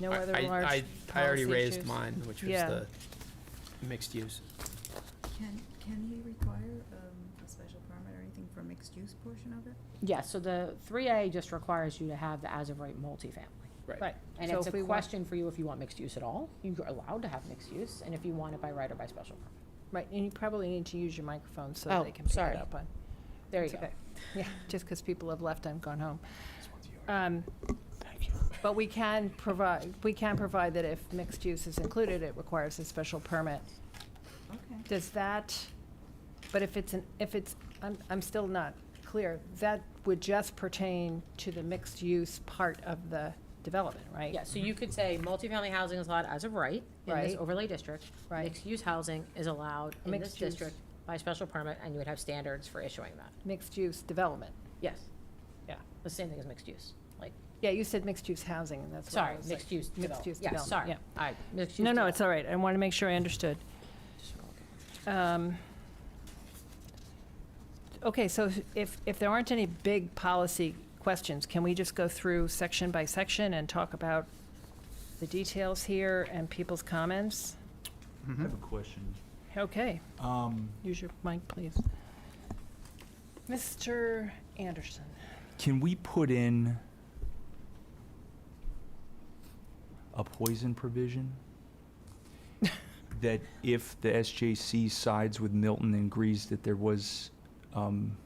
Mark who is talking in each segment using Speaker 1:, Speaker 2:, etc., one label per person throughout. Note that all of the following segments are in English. Speaker 1: no
Speaker 2: I-
Speaker 1: other
Speaker 2: I-
Speaker 1: large
Speaker 2: I- I
Speaker 1: policy
Speaker 2: already raised
Speaker 1: issues.
Speaker 2: mine, which was
Speaker 1: Yeah.
Speaker 2: the mixed use.
Speaker 3: Can, can he require, um, a special permit or anything for mixed use portion of it?
Speaker 4: Yeah, so the three A just requires you to have the as-of-right multifamily.
Speaker 2: Right.
Speaker 1: Right.
Speaker 4: And
Speaker 1: So
Speaker 4: it's
Speaker 1: if
Speaker 4: a
Speaker 1: we want-
Speaker 4: question for you if you want mixed use at all. You're allowed to have mixed use, and if you want it by right or by special permit.
Speaker 1: Right, and you probably need to use your microphone so
Speaker 4: Oh,
Speaker 1: they can pick
Speaker 4: sorry.
Speaker 1: it up on. There you
Speaker 4: It's
Speaker 1: go.
Speaker 4: okay.
Speaker 1: Yeah, just because people have left, I'm gone home. Um, But we can provide, we can provide that if mixed use is included, it requires a special permit.
Speaker 3: Okay.
Speaker 1: Does that, but if it's, an if it's, I'm, I'm still not clear, that would just pertain to the mixed use part of the development, right?
Speaker 4: Yeah, so you could say multifamily housing is allowed as of right in this
Speaker 1: Right.
Speaker 4: overlay district.
Speaker 1: Right.
Speaker 4: Mixed-use housing is allowed in this
Speaker 1: Mixed use.
Speaker 4: district by special permit, and you would have standards for issuing that.
Speaker 1: Mixed use development.
Speaker 4: Yes,
Speaker 1: Yeah.
Speaker 4: the same thing as mixed use, like,
Speaker 1: Yeah, you said mixed use housing, and that's what I
Speaker 4: sorry,
Speaker 1: was like,
Speaker 4: mixed use
Speaker 1: Mixed use
Speaker 4: development. Yeah,
Speaker 1: development,
Speaker 4: sorry.
Speaker 1: yeah.
Speaker 4: All right, mixed use.
Speaker 1: No, no,
Speaker 4: develop-
Speaker 1: it's all right. I want to make sure I understood. Um, Okay, so if, if there aren't any big policy questions, can we just go through section by section and talk about the details here and people's comments?
Speaker 5: I have a question.
Speaker 1: Okay,
Speaker 5: Um,
Speaker 1: use your mic, please. Mr. Anderson,
Speaker 5: Can we put in a poison provision? That if the SJC sides with Milton and agrees that there was um,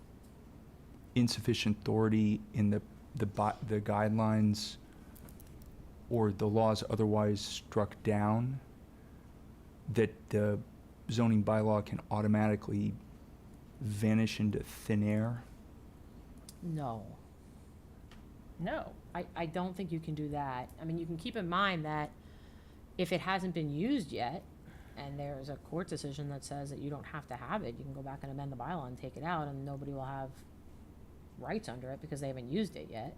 Speaker 5: insufficient authority in the, the bu- the guidelines or the laws otherwise struck down, that the zoning bylaw can automatically vanish into thin air?
Speaker 4: No.
Speaker 1: no.
Speaker 4: I, I don't think you can do that. I mean, you can keep in mind that if it hasn't been used yet, and there's a court decision that says that you don't have to have it, you can go back and amend the bylaw and take it out, and nobody will have rights under it because they haven't used it yet.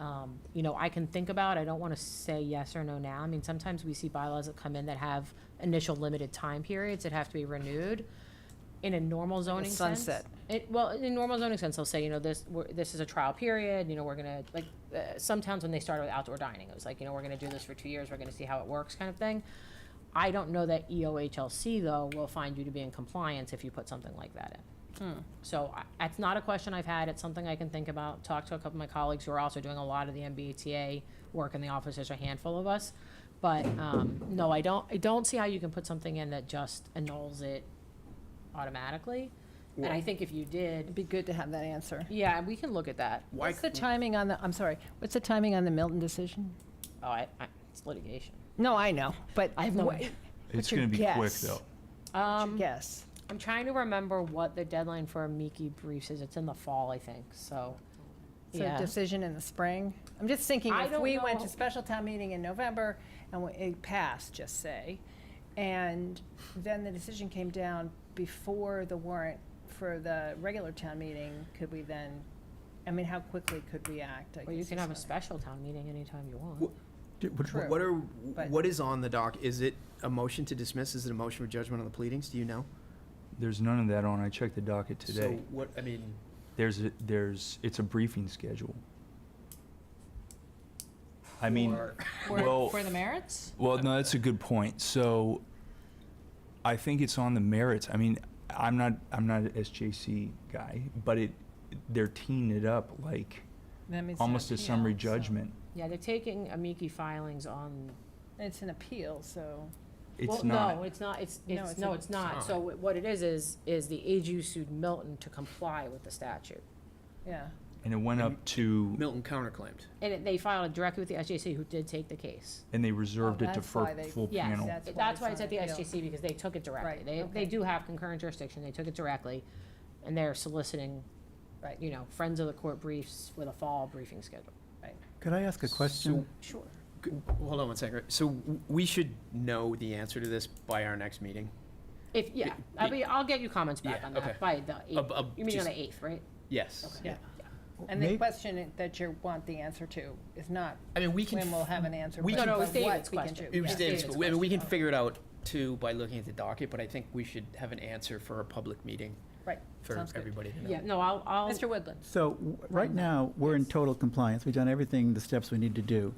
Speaker 4: Um, you know, I can think about, I don't wanna say yes or no now. I mean, sometimes we see bylaws that come in that have initial limited time periods that have to be renewed. In a normal zoning sense.
Speaker 1: sunset.
Speaker 4: It, well, in a normal zoning sense, they'll say, you know, this, we're, this is a trial period, you know, we're gonna, like, uh, some towns when they started with outdoor dining, it was like, you know, we're gonna do this for two years, we're gonna see how it works kind of thing. I don't know that E EOHLC though will find you to be in compliance if you put something like that in.
Speaker 1: Hmm.
Speaker 4: So I- that's not a question I've had. It's something I can think about, talk to a couple of my colleagues who are also doing a lot of the MBTA work in the office. There's a handful of us. But um, no, I don't, I don't see how you can put something in that just annuls it automatically. And I think if you
Speaker 1: It'd
Speaker 4: did,
Speaker 1: be good to have that answer.
Speaker 4: yeah, we can look at that.
Speaker 2: Why
Speaker 1: What's the
Speaker 2: c-
Speaker 1: timing on the, I'm sorry, what's the timing on the Milton decision?
Speaker 4: Oh, I, I, it's litigation.
Speaker 1: No, I know, but.
Speaker 4: I have no
Speaker 1: wha-
Speaker 4: idea.
Speaker 1: What's
Speaker 5: It's
Speaker 1: your
Speaker 5: gonna be quick,
Speaker 1: guess?
Speaker 5: though.
Speaker 4: Um,
Speaker 1: Yes.
Speaker 4: I'm trying to remember what the deadline for Miki briefs is. It's in the fall, I think, so.
Speaker 1: So
Speaker 4: yeah.
Speaker 1: decision in the spring? I'm just thinking,
Speaker 4: I
Speaker 1: if
Speaker 4: don't
Speaker 1: we went
Speaker 4: know.
Speaker 1: to special town meeting in November and we- it passed, just say, and then the decision came down before the warrant for the regular town meeting, could we then, I mean, how quickly could we act? I
Speaker 4: Or you
Speaker 1: guess
Speaker 4: can
Speaker 1: is
Speaker 4: have a
Speaker 1: my-
Speaker 4: special town meeting anytime you want.
Speaker 2: Wh- What what are, what is on the dock? Is it a motion to dismiss? Is it a motion for judgment on the pleadings? Do you know?
Speaker 5: There's none of that on. I checked the docket
Speaker 2: So
Speaker 5: today.
Speaker 2: what, I mean,
Speaker 5: There's, a- there's, it's a briefing schedule. I mean,
Speaker 2: for-
Speaker 5: well,
Speaker 4: the merits?
Speaker 5: well, no, that's a good point. So I think it's on the merits. I mean, I'm not, I'm not an SJC guy, but it, they're teeing it up like
Speaker 1: That means it's an
Speaker 5: almost a
Speaker 1: appeal,
Speaker 5: summary
Speaker 1: so-
Speaker 5: judgment.
Speaker 4: Yeah, they're taking amici filings on,
Speaker 1: It's an appeal, so,
Speaker 5: It's
Speaker 4: well,
Speaker 5: not.
Speaker 4: no, it's not, it's,
Speaker 1: No,
Speaker 4: it's,
Speaker 1: it's
Speaker 4: no,
Speaker 1: a-
Speaker 4: it's not. So wh- what it is, is, is the AG sued Milton to comply with the statute.
Speaker 1: yeah.
Speaker 5: And it went up to,
Speaker 2: Milton counterclaimed.
Speaker 4: And it- they filed it directly with the SJC, who did take the case.
Speaker 5: and they reserved
Speaker 1: Oh,
Speaker 5: it to
Speaker 1: that's
Speaker 5: fir-
Speaker 1: why they-
Speaker 5: full
Speaker 4: Yes,
Speaker 5: panel.
Speaker 1: That's why
Speaker 4: that's
Speaker 1: it's
Speaker 4: why it's
Speaker 1: on
Speaker 4: at the
Speaker 1: appeal.
Speaker 4: SJC, because they took it directly.
Speaker 1: Right,
Speaker 4: They,
Speaker 1: okay.
Speaker 4: they do have concurrent jurisdiction, they took it directly, and they're soliciting,
Speaker 1: Right.
Speaker 4: you know, friends of the court briefs with a fall briefing schedule.
Speaker 6: Could I ask a question?
Speaker 4: Sure.
Speaker 2: G- Hold on one second. So w- we should know the answer to this by our next meeting?
Speaker 4: If, yeah, I
Speaker 2: be-
Speaker 4: mean, I'll get you comments back
Speaker 2: Yeah,
Speaker 4: on
Speaker 2: okay.
Speaker 4: that by the
Speaker 2: Ab-
Speaker 4: eighth,
Speaker 2: ab-
Speaker 4: you mean on
Speaker 2: just-
Speaker 4: the eighth, right?
Speaker 2: Yes.
Speaker 4: Okay.
Speaker 1: Yeah. And
Speaker 6: And
Speaker 1: the
Speaker 6: the May-
Speaker 1: question that you want the answer to is not
Speaker 2: I mean, we can.
Speaker 1: when
Speaker 2: f-
Speaker 1: we'll have an answer,
Speaker 2: we
Speaker 1: but
Speaker 2: but can-
Speaker 4: No, no, it was
Speaker 1: what we can
Speaker 4: David's
Speaker 1: do.
Speaker 4: question.
Speaker 2: It was
Speaker 4: Yeah.
Speaker 2: David's-
Speaker 4: David's
Speaker 2: I mean, we can
Speaker 4: question.
Speaker 2: figure it out too by looking at the docket, but I think we should have an answer for a public meeting
Speaker 1: Right,
Speaker 2: for
Speaker 1: sounds good.
Speaker 2: everybody to know.
Speaker 4: Yeah, no, I'll, I'll.
Speaker 1: Mr. Woodland?
Speaker 6: So, w- right now, we're in total compliance. We've done everything, the steps we need to do.